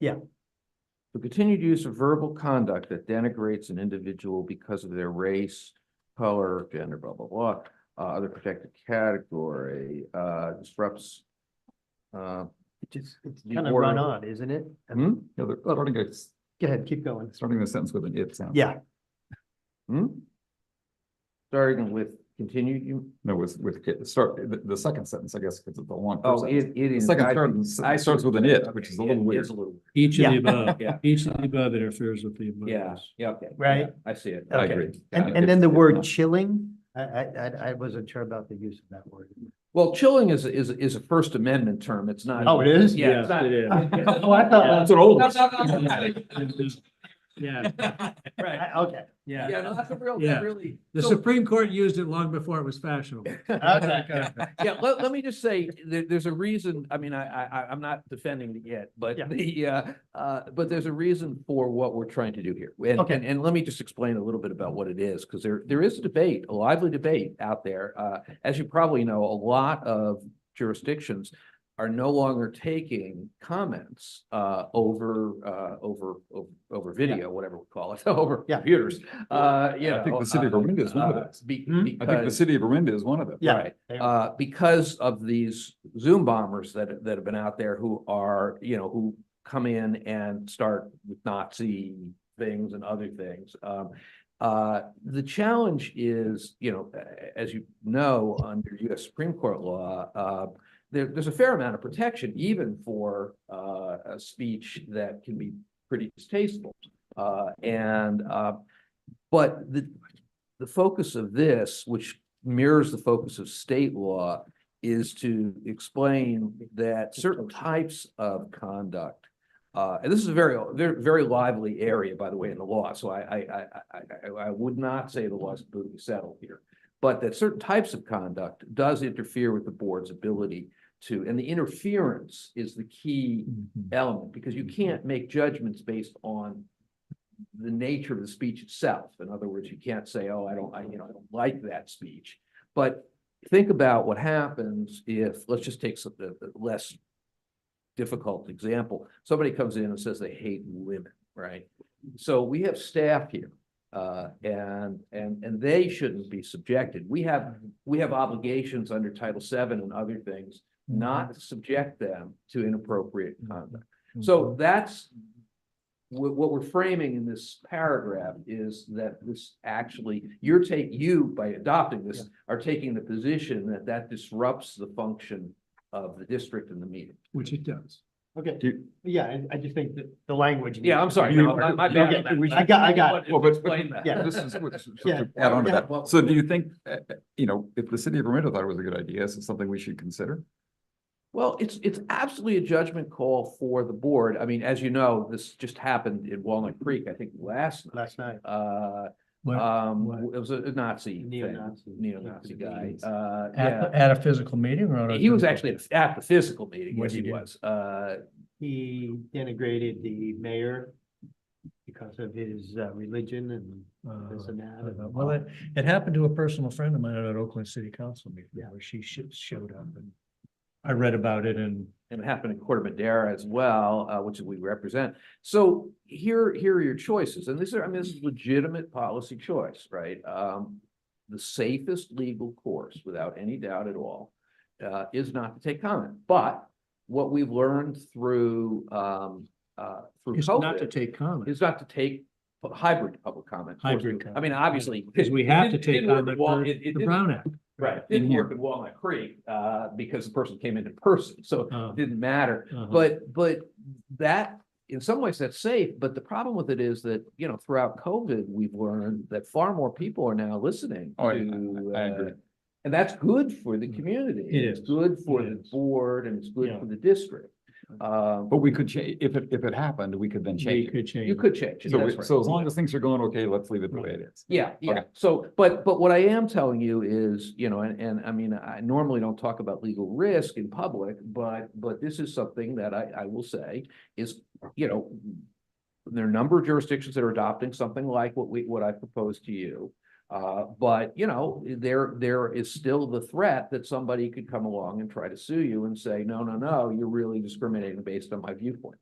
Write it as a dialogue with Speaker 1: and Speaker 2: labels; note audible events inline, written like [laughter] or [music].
Speaker 1: Yeah.
Speaker 2: The continued use of verbal conduct that denigrates an individual because of their race, color, gender, blah, blah, blah, uh, other protected category, uh, disrupts. Uh,
Speaker 1: It just, it's
Speaker 2: The
Speaker 1: kind of run
Speaker 2: order.
Speaker 1: on, isn't it? I mean,
Speaker 2: hmm,
Speaker 3: Yeah, they're starting it's
Speaker 1: Go ahead, keep going.
Speaker 3: starting the sentence with an it sound.
Speaker 1: Yeah,
Speaker 2: hmm? Starting with continued, you,
Speaker 3: No, with, with, it, start, the, the second sentence, I guess, because it's a long. first
Speaker 2: oh,
Speaker 3: sentence.
Speaker 2: it, it
Speaker 3: The
Speaker 2: is. I-
Speaker 3: second sentence
Speaker 2: I-
Speaker 3: starts with an it, which is a
Speaker 2: Okay,
Speaker 3: little
Speaker 2: it
Speaker 3: weird.
Speaker 2: is a little weird.
Speaker 4: Each of
Speaker 1: Yeah.
Speaker 4: the
Speaker 2: [laughs]
Speaker 4: above,
Speaker 2: Yeah.
Speaker 4: each of the above interferes with the above.
Speaker 2: Yeah, yeah, okay.
Speaker 1: Right.
Speaker 2: yeah, I see it.
Speaker 3: I
Speaker 1: okay.
Speaker 3: agree.
Speaker 1: and, and then the word chilling, I, I, I- I wasn't sure about the use of that word.
Speaker 2: Well, chilling is, is, is a First Amendment term. It's not. [laughs]
Speaker 1: Oh, it is?
Speaker 2: Yeah. it's
Speaker 4: Yes, it is. [laughs]
Speaker 2: not-
Speaker 1: Oh, I thought,
Speaker 3: That's an old.
Speaker 2: No,
Speaker 3: one.
Speaker 2: no, no, no.
Speaker 4: Yeah,
Speaker 2: Right.
Speaker 1: I- okay,
Speaker 2: Yeah,
Speaker 4: yeah.
Speaker 2: no, that's a real,
Speaker 4: Yeah.
Speaker 2: really.
Speaker 4: The
Speaker 2: so-
Speaker 4: Supreme Court used it long before it was fashionable.
Speaker 1: okay,
Speaker 2: Yeah,
Speaker 1: [laughs]
Speaker 2: let, let me just say, there, there's a reason, I mean, I, I- I, I'm not defending it yet, but
Speaker 1: Yeah.
Speaker 2: the, uh, uh, but there's a reason for what we're trying to do here. And,
Speaker 1: Okay.
Speaker 2: and, and let me just explain a little bit about what it is, because there, there is a debate, a lively debate out there. Uh, as you probably know, a lot of jurisdictions are no longer taking comments, uh, over, uh, over, over, over video, whatever we call it, [laughs] over
Speaker 1: Yeah.
Speaker 2: computers. Uh, you
Speaker 3: I think
Speaker 2: know,
Speaker 3: the city of
Speaker 2: uh,
Speaker 3: Orinda is one of
Speaker 2: uh,
Speaker 3: those.
Speaker 2: be-
Speaker 1: Hmm? I
Speaker 3: I think the
Speaker 2: Because,
Speaker 3: city of Orinda is one of them.
Speaker 1: yeah.
Speaker 2: right,
Speaker 1: They-
Speaker 2: uh, because of these Zoom bombers that, that have been out there who are, you know, who come in and start with Nazi things and other things. Um, uh, the challenge is, you know, a- as you know, under US Supreme Court law, uh, there, there's a fair amount of protection even for, uh, a speech that can be pretty distasteful. Uh, and, uh, but the, the focus of this, which mirrors the focus of state law, is to explain that certain types of conduct. Uh, and this is a very, very, very lively area, by the way, in the law, so I, I, I, I- I, I would not say the law is completely settled here. But that certain types of conduct does interfere with the board's ability to, and the interference is the key element, because you can't make judgments based on the nature of the speech itself. In other words, you can't say, oh, I don't, I, you know, I don't like that speech. But think about what happens if, let's just take some, the, the less difficult example. Somebody comes in and says they hate women, right? So we have staff here, uh, and, and, and they shouldn't be subjected. We have, we have obligations under Title VII and other things not to subject them to inappropriate conduct. So
Speaker 1: Mm-hmm.
Speaker 2: that's what, what we're framing in this paragraph is that this actually, you're take, you by adopting this are taking the position that that disrupts the function of the district and the meeting.
Speaker 4: Which it does.
Speaker 1: Okay,
Speaker 3: Do you-
Speaker 1: yeah, I, I just think that the language.
Speaker 2: Yeah, I'm
Speaker 1: needs-
Speaker 2: sorry. no, my- my bad.
Speaker 1: Okay, we- I got- I got
Speaker 3: Well, but-
Speaker 2: Explain that.
Speaker 1: Yeah.
Speaker 3: This is, what- so
Speaker 1: Yeah.
Speaker 3: to add on to
Speaker 1: Yeah,
Speaker 3: that.
Speaker 2: well-
Speaker 3: So do you think, uh, uh, you know, if the city of Orinda thought it was a good idea, is it something we should consider?
Speaker 2: Well, it's, it's absolutely a judgment call for the board. I mean, as you know, this just happened in Walnut Creek, I think last night.
Speaker 1: Last night.
Speaker 2: Uh,
Speaker 4: What-
Speaker 2: um,
Speaker 4: what?
Speaker 2: it was a Nazi thing,
Speaker 1: Neo-Nazi.
Speaker 2: neo-Nazi guy,
Speaker 1: Nazi.
Speaker 2: uh, yeah.
Speaker 4: At, at a physical meeting or?
Speaker 2: He was actually at- at the physical meeting, yes,
Speaker 4: Yes, he
Speaker 2: he
Speaker 4: did.
Speaker 2: was, uh,
Speaker 1: He denigrated the mayor because of his uh, religion and
Speaker 4: Uh,
Speaker 2: Oh,
Speaker 1: this and that. and-
Speaker 4: Well, it, it happened to a personal friend of mine at an Oakland City Council meeting
Speaker 1: Yeah.
Speaker 4: where she sh- showed up and I read about it and
Speaker 2: and it happened in Corte Madera as well, uh, which we represent. So here, here are your choices, and these are, I mean, this is legitimate policy choice, right? Um, the safest legal course, without any doubt at all, uh, is not to take comment, but what we've learned through, um, uh, through
Speaker 4: it's not to
Speaker 2: COVID
Speaker 4: take comment.
Speaker 2: is not to take hybrid public comment. Of course,
Speaker 4: Hybrid
Speaker 2: we- I
Speaker 4: comment,
Speaker 2: mean, obviously.
Speaker 4: Because we
Speaker 2: [laughs] it
Speaker 4: have to
Speaker 2: didn't-
Speaker 4: take
Speaker 2: didn't work
Speaker 4: on
Speaker 2: at Wal-
Speaker 4: the,
Speaker 2: it- it
Speaker 4: the
Speaker 2: didn't-
Speaker 4: Brown Act.
Speaker 2: Right, it
Speaker 3: In
Speaker 2: didn't
Speaker 3: here.
Speaker 2: work in Walnut Creek, uh, because the person came in in person, so
Speaker 4: Uh,
Speaker 3: Oh.
Speaker 2: it didn't matter.
Speaker 4: uh-huh.
Speaker 2: But, but that, in some ways, that's safe, but the problem with it is that, you know, throughout COVID, we've learned that far more people are now listening
Speaker 3: Oh, I-
Speaker 2: to.
Speaker 3: I- I agree. Mm-hmm.
Speaker 2: uh, And that's good for the community.
Speaker 4: It
Speaker 2: It's
Speaker 4: is.
Speaker 2: Good for
Speaker 4: It
Speaker 2: the
Speaker 4: is.
Speaker 2: board and it's good
Speaker 4: Yeah.
Speaker 2: for the district. Um,
Speaker 3: But we could change, if it, if it happened, we could then
Speaker 4: We
Speaker 3: change it.
Speaker 4: could change.
Speaker 2: you could change it,
Speaker 3: Oh, So,
Speaker 2: that's
Speaker 3: we-
Speaker 2: right.
Speaker 3: so as long as things are going okay, let's leave it the way it is.
Speaker 2: Yeah, yeah.
Speaker 3: Okay.
Speaker 2: So, but, but what I am telling you is, you know, and, and I mean, I normally don't talk about legal risk in public, but, but this is something that I, I will say is, you know, there are a number of jurisdictions that are adopting something like what we, what I proposed to you. Uh, but, you know, there, there is still the threat that somebody could come along and try to sue you and say, no, no, no, you're really discriminating based on my viewpoint.